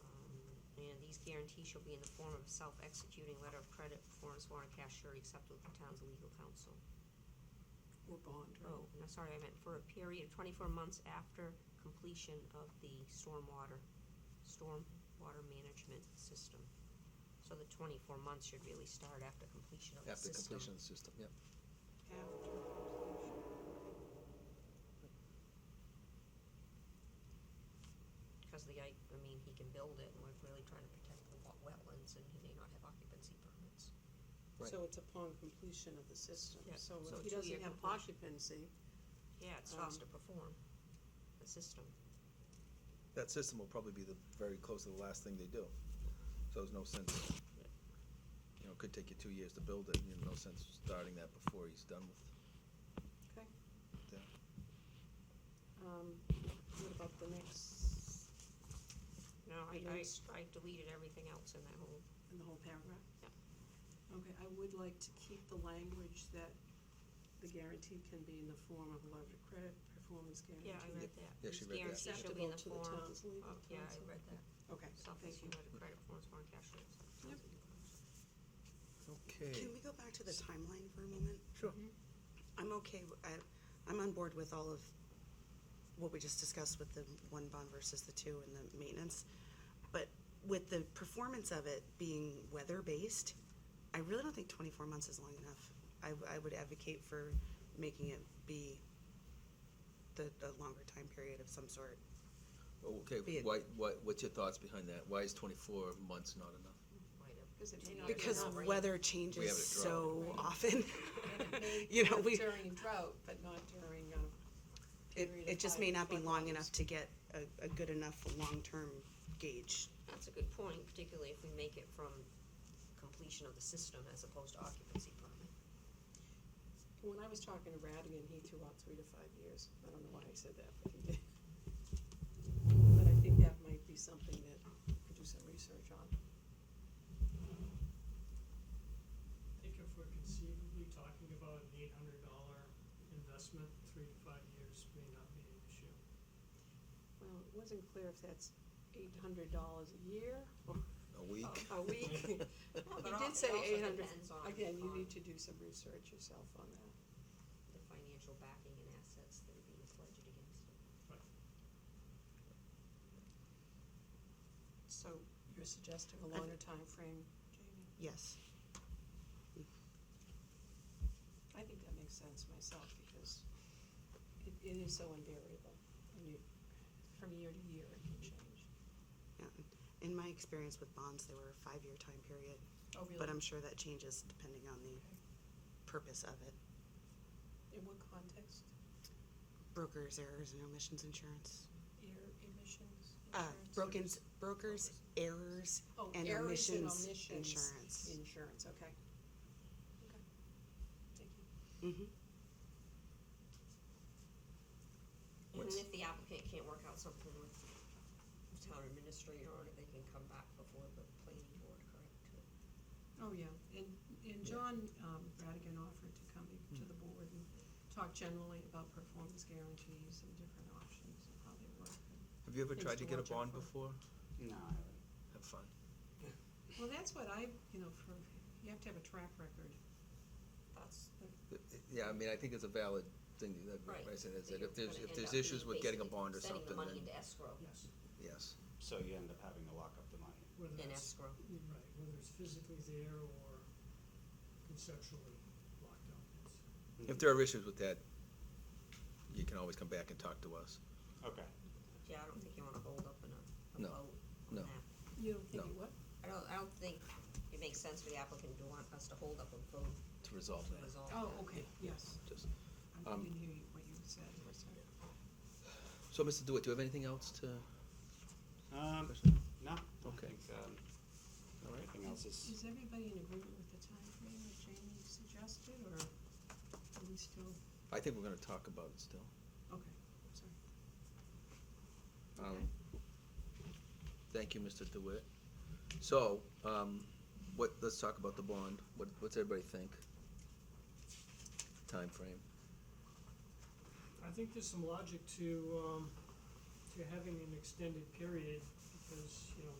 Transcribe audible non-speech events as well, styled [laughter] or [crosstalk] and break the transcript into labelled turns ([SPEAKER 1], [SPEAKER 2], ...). [SPEAKER 1] Um, these guarantees shall be in the form of a self-executing letter of credit, performance warrant, cash surety accepted with the town's legal counsel.
[SPEAKER 2] or bond, right?
[SPEAKER 1] Oh, no, sorry, I meant for a period of twenty-four months after completion of the stormwater, stormwater management system. So the twenty-four months should really start after completion of the
[SPEAKER 3] after
[SPEAKER 1] system.
[SPEAKER 3] completion of the system, yep.
[SPEAKER 2] After completion.
[SPEAKER 1] Because the, guy- I mean, he can build it, and we're really trying to protect the wa- wetlands, and he may not have occupancy permits.
[SPEAKER 3] Right.
[SPEAKER 2] So it's upon completion of the system.
[SPEAKER 1] Yeah,
[SPEAKER 2] So
[SPEAKER 1] so
[SPEAKER 2] if he
[SPEAKER 1] two-year
[SPEAKER 2] doesn't have
[SPEAKER 1] completion.
[SPEAKER 2] occupancy,
[SPEAKER 1] Yeah, it's
[SPEAKER 2] Um,
[SPEAKER 1] fast to perform, the system.
[SPEAKER 3] That system will probably be the, very close to the last thing they do. So there's no sense, you know, it could take you two years to build it, you know, no sense starting that before he's done with
[SPEAKER 2] okay.
[SPEAKER 3] that.
[SPEAKER 2] Um, What about the next,
[SPEAKER 1] No, I, I,
[SPEAKER 2] Yes.
[SPEAKER 1] I deleted everything else in that whole,
[SPEAKER 2] in the whole paragraph?
[SPEAKER 1] yeah.
[SPEAKER 2] Okay, I would like to keep the language that the guarantee can be in the form of a letter of credit, performance guarantee.
[SPEAKER 1] Yeah, I read that.
[SPEAKER 3] Yeah, she read that.
[SPEAKER 1] Guarantee shall be in the
[SPEAKER 2] Acceptable to the
[SPEAKER 1] form
[SPEAKER 2] town's legal
[SPEAKER 1] of- Yeah, I
[SPEAKER 2] counsel.
[SPEAKER 1] read that.
[SPEAKER 2] Okay, thank
[SPEAKER 1] Self-issue
[SPEAKER 2] you.
[SPEAKER 1] letter of credit forms for cash rates.
[SPEAKER 2] Yep.
[SPEAKER 3] Okay.
[SPEAKER 4] Can we go back to the timeline for a moment?
[SPEAKER 3] Sure.
[SPEAKER 4] I'm okay, w- I, I'm on board with all of what we just discussed with the one bond versus the two and the maintenance. But with the performance of it being weather-based, I really don't think twenty-four months is long enough. I, I would advocate for making it be the, the longer time period of some sort. Be
[SPEAKER 3] Okay,
[SPEAKER 4] it-
[SPEAKER 3] why, why, what's your thoughts behind that? Why is twenty-four months not enough?
[SPEAKER 1] Might have.
[SPEAKER 2] Because it may not be
[SPEAKER 4] Because
[SPEAKER 2] enough.
[SPEAKER 4] weather
[SPEAKER 3] We have a
[SPEAKER 4] changes
[SPEAKER 3] drought.
[SPEAKER 4] so often.
[SPEAKER 2] And it [laughs]
[SPEAKER 1] [laughs]
[SPEAKER 2] may
[SPEAKER 4] You know,
[SPEAKER 2] work
[SPEAKER 4] we-
[SPEAKER 2] During drought, but not
[SPEAKER 1] uh,
[SPEAKER 2] during, um,
[SPEAKER 4] It,
[SPEAKER 2] period
[SPEAKER 4] it
[SPEAKER 2] of
[SPEAKER 4] just
[SPEAKER 2] high
[SPEAKER 4] may not be
[SPEAKER 2] flood
[SPEAKER 4] long
[SPEAKER 2] levels.
[SPEAKER 4] enough to get a, a good enough long-term gauge.
[SPEAKER 1] That's a good point, particularly if we make it from completion of the system as opposed to occupancy permit.
[SPEAKER 2] When I was talking to Radigan, he threw out three to five years. I don't know why I said that, but he did. But I think that might be something that we could do some research on.
[SPEAKER 5] I think if we're conceivably talking about an eight hundred dollar investment, three to five years may not be an issue.
[SPEAKER 2] Well, it wasn't clear if that's eight hundred dollars a year or
[SPEAKER 3] A week?
[SPEAKER 2] a week. He
[SPEAKER 1] al-
[SPEAKER 2] did
[SPEAKER 1] it
[SPEAKER 2] say
[SPEAKER 1] also
[SPEAKER 2] eight hundred.
[SPEAKER 1] depends on-
[SPEAKER 2] Again, you
[SPEAKER 1] on-
[SPEAKER 2] need to do some research yourself on that.
[SPEAKER 1] The financial backing and assets that are being pledged against it.
[SPEAKER 5] But
[SPEAKER 2] So you're suggesting a longer time frame, Jamie?
[SPEAKER 4] Yes.
[SPEAKER 2] I think that makes sense myself, because it, it is so invariable, and you, from year to year, it can change.
[SPEAKER 4] Yeah. In my experience with bonds, they were a five-year time period.
[SPEAKER 2] Oh, really?
[SPEAKER 4] But I'm sure that changes depending on the purpose of it.
[SPEAKER 2] In what context?
[SPEAKER 4] Brokers, errors, and omissions insurance.
[SPEAKER 2] Air emissions?
[SPEAKER 4] Uh,
[SPEAKER 2] insurance?
[SPEAKER 4] brokers, brokers, errors,
[SPEAKER 2] Oh,
[SPEAKER 4] and
[SPEAKER 2] errors and
[SPEAKER 4] omissions
[SPEAKER 2] omissions
[SPEAKER 4] insurance.
[SPEAKER 2] Insurance, okay. Okay. Thank you.
[SPEAKER 4] Mhm.
[SPEAKER 1] And
[SPEAKER 3] What's-
[SPEAKER 1] then if the applicant can't work out something with the town administrator on it, they can come back before the planning board, correct?
[SPEAKER 2] Oh, yeah, and, and John, um, Radigan offered to come to the board and talk generally about performance guarantees and different options and how they work.
[SPEAKER 3] [laughs] Have you ever
[SPEAKER 2] Things
[SPEAKER 3] tried
[SPEAKER 2] to
[SPEAKER 3] to get a
[SPEAKER 2] watch out
[SPEAKER 3] bond
[SPEAKER 2] for.
[SPEAKER 3] before?
[SPEAKER 6] No, I haven't.
[SPEAKER 3] Have fun.
[SPEAKER 2] Well, that's what I, you know, for, you have to have a track record.
[SPEAKER 1] That's,
[SPEAKER 3] Yeah, I mean, I think it's a valid thing, that,
[SPEAKER 1] right.
[SPEAKER 3] I said, is
[SPEAKER 1] that
[SPEAKER 3] that
[SPEAKER 1] you're
[SPEAKER 3] if there's,
[SPEAKER 1] gonna
[SPEAKER 3] if
[SPEAKER 1] end
[SPEAKER 3] there's
[SPEAKER 1] up
[SPEAKER 3] issues with getting a
[SPEAKER 1] basically
[SPEAKER 3] bond or
[SPEAKER 1] sending
[SPEAKER 3] something,
[SPEAKER 1] the money
[SPEAKER 3] then,
[SPEAKER 1] into escrow,
[SPEAKER 5] yes,
[SPEAKER 3] yes.
[SPEAKER 6] So you end up having to lock up the money.
[SPEAKER 5] whether
[SPEAKER 1] in
[SPEAKER 5] it's,
[SPEAKER 1] escrow.
[SPEAKER 5] right, whether it's physically there or conceptually locked up, it's.
[SPEAKER 3] If there are issues with that, you can always come back and talk to us.
[SPEAKER 6] Okay.
[SPEAKER 1] Yeah, I don't think you wanna hold up in a, a
[SPEAKER 3] No,
[SPEAKER 1] vote on
[SPEAKER 3] no.
[SPEAKER 1] that.
[SPEAKER 2] You don't think
[SPEAKER 3] No.
[SPEAKER 2] it would?
[SPEAKER 1] I don't, I don't think it makes sense for the applicant to want us to hold up a vote
[SPEAKER 3] To resolve
[SPEAKER 1] to
[SPEAKER 3] that.
[SPEAKER 1] resolve that.
[SPEAKER 2] Oh, okay, yes.
[SPEAKER 3] Just,
[SPEAKER 2] I
[SPEAKER 3] Um,
[SPEAKER 2] didn't hear you- what you said, I'm sorry.
[SPEAKER 3] so, Mr. Dewitt, do you have anything else to,
[SPEAKER 6] Um,
[SPEAKER 3] question?
[SPEAKER 6] no, I
[SPEAKER 3] Okay.
[SPEAKER 6] think, um,
[SPEAKER 3] All right.
[SPEAKER 6] everything else
[SPEAKER 2] Is
[SPEAKER 6] is,
[SPEAKER 2] is everybody in agreement with the time frame that Jamie suggested, or are we still,
[SPEAKER 3] I think we're gonna talk about it still.
[SPEAKER 2] okay, sorry.
[SPEAKER 3] Um,
[SPEAKER 2] Okay.
[SPEAKER 3] Thank you, Mr. DeWitt. So, um, what, let's talk about the bond. What, what's everybody think? Time frame.
[SPEAKER 5] I think there's some logic to, um, to having an extended period, because, you know,